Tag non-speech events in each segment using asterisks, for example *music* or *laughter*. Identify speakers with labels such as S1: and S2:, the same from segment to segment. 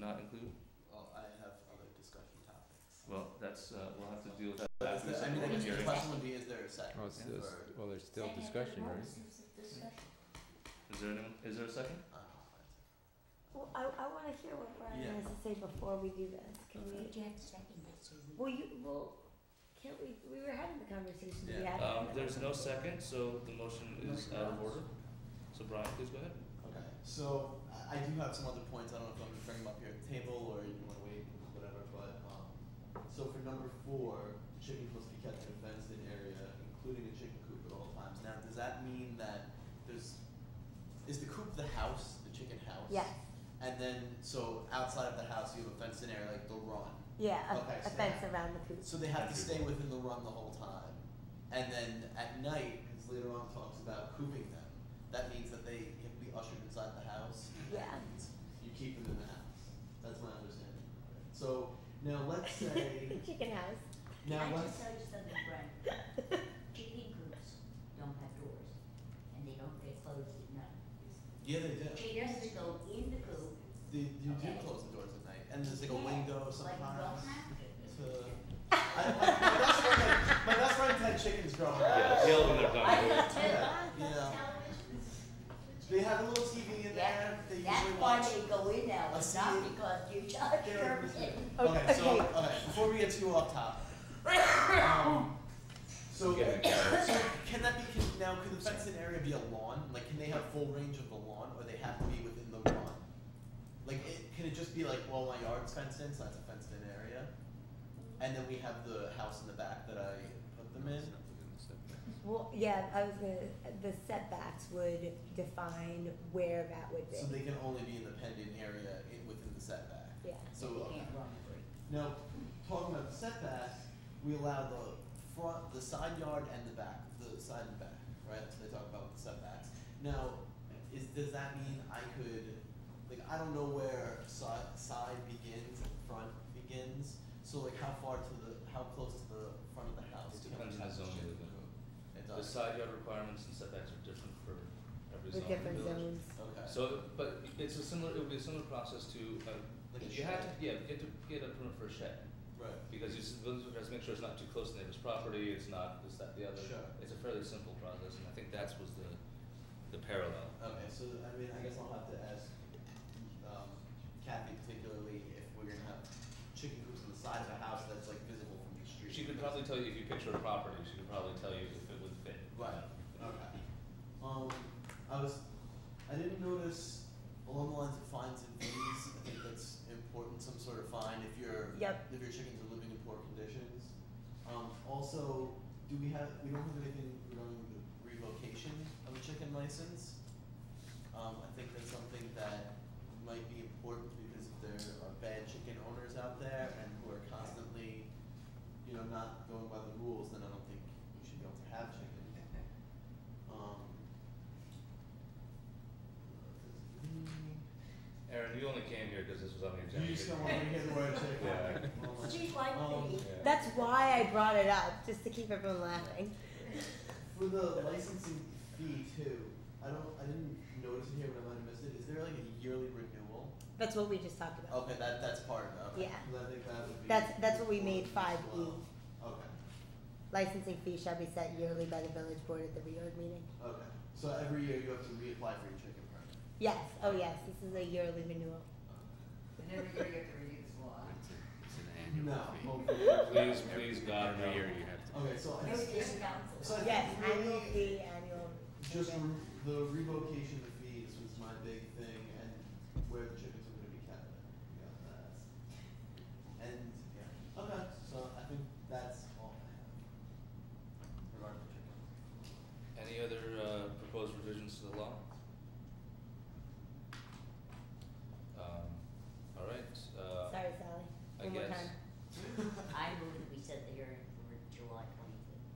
S1: not include?
S2: Well, I have other discussion topics.
S1: Well, that's, uh, we'll have to deal with that
S2: But
S1: after
S2: is there, I
S1: the
S2: mean, I
S1: public
S2: guess the
S1: hearing.
S2: question would be, is there a second
S3: Well, Oh, it's,
S2: for, uh,
S3: it's, well, there's still
S4: Second,
S3: discussion,
S4: what
S3: right?
S4: was the discussion?
S1: Is there anyone, is there a second?
S2: uh,
S5: Well, I, I wanna hear what Brian
S2: Yeah.
S5: has to say before we do this, can we,
S4: But you have to second it, Susan.
S5: well, you, well, can't we, we were having the conversation, we
S2: Yeah.
S5: had.
S1: Um, there's no second, so the motion is out of order. So Brian, please go ahead.
S2: okay, so I, I do have some other points, I don't know if I'm gonna bring them up here at the table or you wanna wait, whatever, but, um, so for number four, chickens must be kept in a fenced in area, including a chicken coop at all times. Now, does that mean that there's, is the coop the house, the chicken house?
S5: Yes,
S2: And then, so outside of the house, you have a fenced in area like the run.
S5: yeah, a,
S2: Okay,
S5: a
S2: so-
S5: fence around the coop,
S2: So they have to stay within the run the whole time. And then at night, because later on talks about cooping them, that means that they have to be ushered inside the house.
S5: Yeah.
S2: and You keep them in the house. That's my understanding. So now let's
S4: *laughs*
S2: say,
S5: *laughs* chicken house.
S2: now
S4: I
S2: let's,
S4: just noticed on the front,
S2: *laughs*
S4: chicken coops don't have doors, and they don't, they close at night.
S2: yeah, they do.
S4: She has to go in the coop,
S2: They, you do
S4: Okay.
S2: close the doors at night. And there's like a
S4: Yeah,
S2: window
S4: like,
S2: sometimes.
S4: you don't have to.
S2: to- I, I, my best friend had- my best friend had chickens growing up.
S1: Yeah, yell when they're done.
S4: I did too.
S2: *laughs* Yeah, yeah. They have a little TV in there. They
S4: That's
S2: usually
S4: why
S2: watch.
S4: they go in now,
S2: I
S4: it's
S2: see
S4: not
S2: it.
S4: because you charge
S2: They're-
S4: them in.
S2: Okay,
S5: Okay.
S2: so okay, before we get too off topic. Um, so, so can that be can, now? Can the fenced in area be a lawn? Like, can they have full range of the lawn, or they have to be within the lawn? Like, it, can it just be like, well, my yard's fenced in, so that's a fenced in area, and then we have the house in the back that I put them in.
S5: Well, yeah, I was gonna, the setbacks would define where that would
S2: So
S5: be,
S2: they can only be in the pendant area in, within the setback.
S5: yeah.
S2: So
S4: You
S2: okay.
S4: can't run free.
S2: Now, talking about the setback, we allow the front, the side yard and the back, the side and back, right? So they talk about the setbacks. Now, is, does that mean I could, like, I don't know where side, side begins and front begins, so like how far to the, how close to the front of the house?
S1: It depends
S2: can we
S1: on the zone you live in.
S2: shift the- It
S1: The
S2: does,
S1: side yard requirements and setbacks are different for every zone in
S5: The
S1: the
S5: different
S1: village.
S5: zones,
S2: okay.
S1: So, but it's a similar, it would be a similar process to, uh,
S2: Like a
S1: you have to,
S2: shed.
S1: yeah, you have to get a permit for a shed.
S2: Right,
S1: Because you, s- village has to make sure it's not too close to neighbor's property, it's not this, that, the other.
S2: Sure.
S1: It's a fairly simple process, and I think that's was the, the parallel.
S2: okay, so I mean, I guess I'll have to ask, um, Kathy particularly if we're gonna have chicken coops on the side of a house that's like visible from the street.
S1: She could
S2: because-
S1: probably tell you, if you picture a property, she could probably tell you if it would fit.
S2: Right. Okay. Um, I was, I didn't notice along the lines of fines and fees, I think that's important, some sort of fine if your,
S5: Yep.
S2: if your chickens are living in poor conditions. Um, also, do we have, we don't have anything regarding the revocation of a chicken license? Um, I think that's something that might be important because if there are bad chicken owners out there and who are constantly, you know, not going by the rules, then I don't think we should be able to have *laughs* chicken. Um.
S1: Aaron, you only came here because this was on the agenda.
S2: You just don't want to hear the word chicken.
S1: Yeah.
S2: Oh my-
S4: She's like
S2: Um,
S4: me.
S1: Yeah.
S5: that's why I brought it up, just to keep everyone laughing.
S2: For the licensing fee too, I don't, I didn't notice it here, but I might have missed it, is there like a yearly renewal?
S5: That's what we just talked about.
S2: Okay, that, that's part of it, okay.
S5: Yeah.
S2: 'Cause I think that would be
S5: That's- that's what we made E.
S2: important as
S5: 5E.
S2: well. Okay,
S5: Licensing fee shall be set yearly by the village board at the reorg meeting.
S2: okay, so every year you have to reapply for your chicken permit.
S5: Yes, oh yes, this is a yearly
S1: *gasps*
S5: renewal.
S6: And every year you have to renew this law.
S3: It's an
S2: No, *laughs*
S1: Please, please, God, no.
S3: Every year you have to.
S2: okay, so I
S4: No
S2: just,
S4: different
S2: so I
S4: council.
S2: think
S5: Yes,
S2: really-
S5: annual fee, annual.
S2: Just the re- the revocation of fees was my big thing, and where the chickens are gonna be kept. We got that. And yeah, okay. So I think that's all I have regarding the chickens.
S1: Any other uh, proposed revisions to the law? Um, all right. Uh,
S5: Sorry, Sally.
S1: I
S5: One more
S1: guess.
S5: time.
S4: I move that we set the hearing for July twenty-fifth.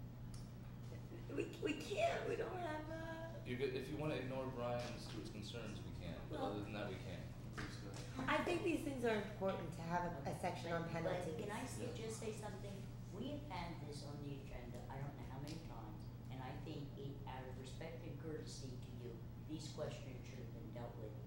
S5: We, we can't, we don't have uh, a.
S1: You could, if you want to ignore Brian and Stuart's concerns, we can. But
S5: Well-
S1: other than that, we can't.
S2: Seems good.
S5: I think these things are important to have a, a section on
S4: But- but
S5: penalties.
S4: Can I say-
S2: Yeah.
S4: just say something? We have had this on the agenda, I don't know how many times, and I think it, out of respect and courtesy to you, these questions should have been dealt with